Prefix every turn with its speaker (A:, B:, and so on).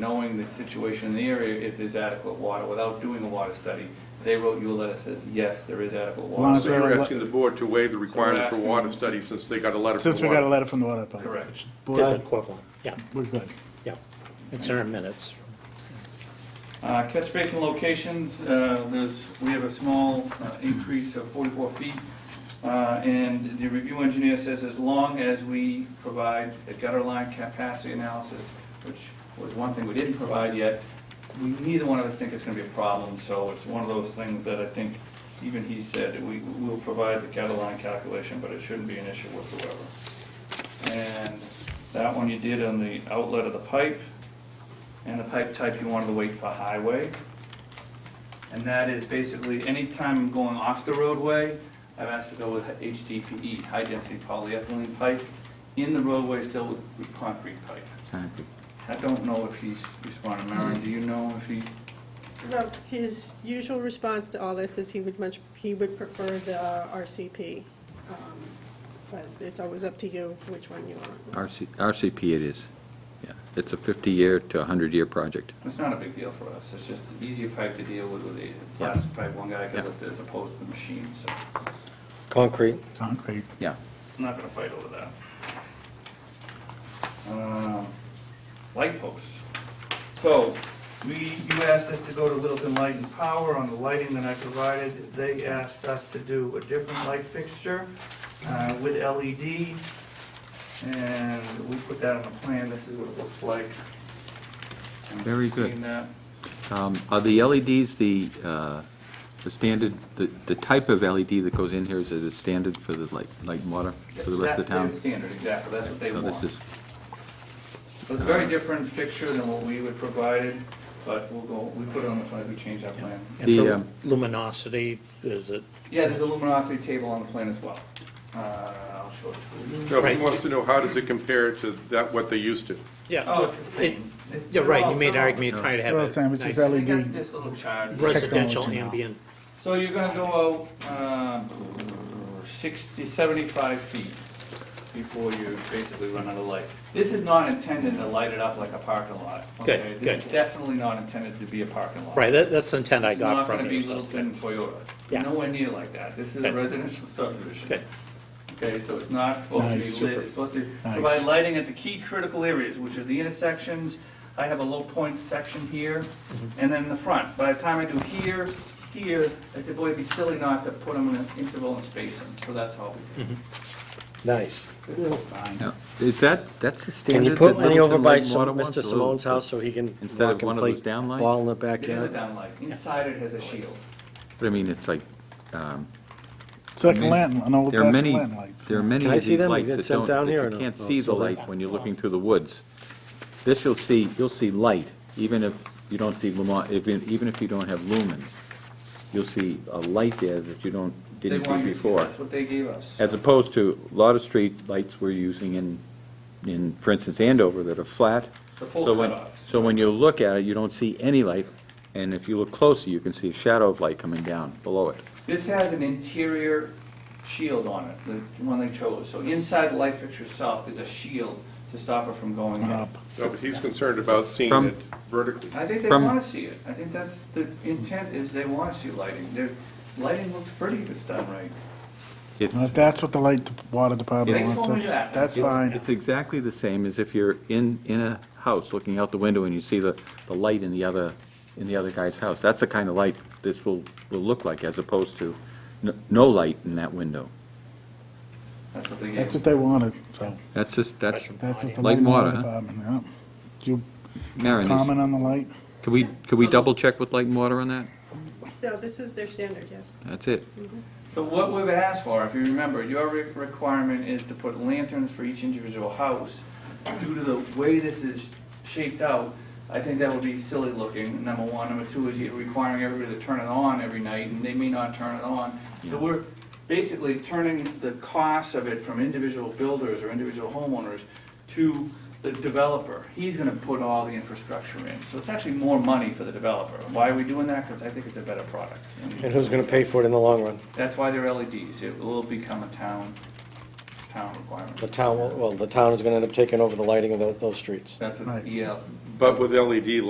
A: knowing the situation in the area, if there's adequate water, without doing a water study. They wrote you a letter that says, yes, there is adequate
B: Well,
A: water.
B: it's-
C: So you're asking the board to waive the requirement for
A: asking-
C: water study since they got a letter from
B: Since
C: the
B: we got a
C: water?
B: letter from the water department.
A: Correct.
B: Board,
D: equivalent, yeah,
B: we're good.
D: yeah. It's in our minutes.
A: Uh, Catch basin locations, uh, there's, we have a small uh, increase of 44 feet. Uh, And the review engineer says as long as we provide a gutter line capacity analysis, which was one thing we didn't provide yet, we, neither one of us think it's gonna be a problem, so it's one of those things that I think even he said, we will provide the gutter line calculation, but it shouldn't be an issue whatsoever. And that one you did on the outlet of the pipe, and the pipe type you wanted to wait for highway. And that is basically, anytime I'm going off the roadway, I've asked to go with HDPE, E, high-density polyethylene pipe, in the roadway still with- with concrete pipe. I don't know if he's responding, Maren, do you know if he,
E: No, his usual response to all this is he would much, he would prefer the uh, RCP. um, But it's always up to you which one you want.
F: RC RCP it is, yeah. It's a 50-year to 100-year project.
A: it's not a big deal for us, it's just easier pipe to deal with with a plastic pipe, one guy could
F: Yeah.
A: lift it as opposed to the machine, so
D: Concrete,
B: Concrete.
F: Yeah.
A: I'm not gonna fight over that. Um, Light posts. So, we, you asked us to go to Littleton Light and Power on the lighting that I provided. They asked us to do a different light fixture uh, with LED. And we put that on the plan, this is what it looks like.
F: Very good.
A: Seen that?
F: Um, Are the LEDs the, uh, the standard, the, the type of LED that goes in here, is it a standard for the light, light and water for the rest of the town?
A: That's their standard, exactly, that's what they
F: So
A: want.
F: this is,
A: So It's a very different fixture than what we would provided, but we'll go, we put it on the plan, we changed our plan.
D: and
F: The,
D: for
F: um,
D: luminosity, is it,
A: Yeah, there's a luminosity table on the plan as well. Uh, I'll show it to you.
C: So he
D: Right.
C: wants to know, how does it compare to that, what they used to?
A: Oh,
D: yeah,
A: it's the same. It's-
D: yeah, right,
A: they're all-
D: you made an
A: they're all-
D: argument trying to have
B: Well, Sam,
D: a
B: it's just
D: nice
A: They got
B: LED.
A: this little chart.
D: residential
B: Technology now.
D: ambient,
A: So you're gonna go out, um, sixty, seventy-five feet before you basically run out of light. This is not intended to light it up like a parking lot.
D: Good,
A: okay? This is
D: good.
A: definitely not intended to be a parking lot.
D: right, that, that's the intent I
A: It's not
D: got
A: gonna
D: from you,
A: be
D: so,
A: Littleton Toyota.
D: Yeah.
A: Nowhere near like that. This is a
D: Good.
A: residential subdivision.
D: good,
A: Okay, so it's not supposed to be
B: Nice.
A: lit, it's supposed to
B: Nice.
A: provide lighting at the key critical areas, which are the intersections. I have a low point section here,
D: Mm-hmm.
A: and then the front. By the time I do here, here, I said, boy, it'd be silly not to put them in an interval and space them, so that's all we did.
D: nice.
F: yeah. is that, that's the standard?
D: Can you put
F: that
D: one over
F: Littleton
D: by
F: Light and Water wants, a
D: Mr.
F: little-
D: Simone's house so he can
F: Instead of
D: walk
F: one
D: and
F: of
D: play
F: those down lights?
D: ball in the
A: It is a
D: backyard?
A: downlight, inside it has a shield.
F: But I mean, it's like, um,
B: It's like a
F: Many-
B: lantern, an old
F: there are
B: fashioned
F: many,
B: lantern lights.
F: there are many
D: Can I
F: of
D: see
F: these
D: them? We
F: lights
D: get
F: that
D: sent
F: don't,
D: down
F: that
D: here or
F: you
D: no?
F: can't
D: Oh,
F: see
D: it's
F: the
D: over
F: light
D: there.
F: when you're looking through the woods. This you'll see, you'll see light, even if you don't see lumo, even, even if you don't have lumens. You'll see a light there that you don't,
A: They
F: didn't
A: want
F: see
A: you to-
F: before.
A: That's what they gave us.
F: As opposed to a lot of street lights we're using in, in, for instance, Andover that are flat.
A: The full
F: So when-
A: cutoffs.
F: So when you look at it, you don't see any light, and if you look closer, you can see a shadow of light coming down below it.
A: This has an interior shield on it, the one they chose. So inside the light fixture itself is a shield to stop it from going
B: Going
A: up.
B: up.
C: No, but he's concerned about seeing
F: From-
C: it vertically.
A: I think they
F: From-
A: want to see it. I think that's, the intent is they want to see lighting. Their, lighting looks pretty if it's done right.
B: Now, If
F: It's,
B: that's what the light water department
A: They told me
B: wants,
A: that.
B: that's, that's
A: It's-
B: fine.
F: it's exactly the same as if you're in, in a house, looking out the window, and you see the, the light in the other, in the other guy's house. That's the kind of light this will, will look like, as opposed to n- no light in that window.
A: That's what they
B: That's
A: gave.
B: what they wanted, so
F: That's just, that's,
B: that's what the
F: Light
B: light
F: and
B: water
F: water, huh?
B: department, yeah. Do you
F: Maren, is-
B: comment on the light?
F: could we, could we double check with light and water on that?
E: No, this is their standard, yes.
F: That's it.
A: So what we've asked for, if you remember, your re- requirement is to put lanterns for each individual house. Due to the way this is shaped out, I think that would be silly looking, number one. Number two is you're requiring everybody to turn it on every night, and they may not turn it on. So
F: Yeah.
A: we're basically turning the cost of it from individual builders or individual homeowners to the developer. He's gonna put all the infrastructure in, so it's actually more money for the developer. Why are we doing that? Because I think it's a better product.
D: And who's gonna pay for it in the long run?
A: E That's why they're LEDs, it will become a town, town requirement.
G: The town, well, the town is gonna end up taking over the lighting of those, those streets.
A: That's what E
H: Right.
A: EL,
C: But with E LED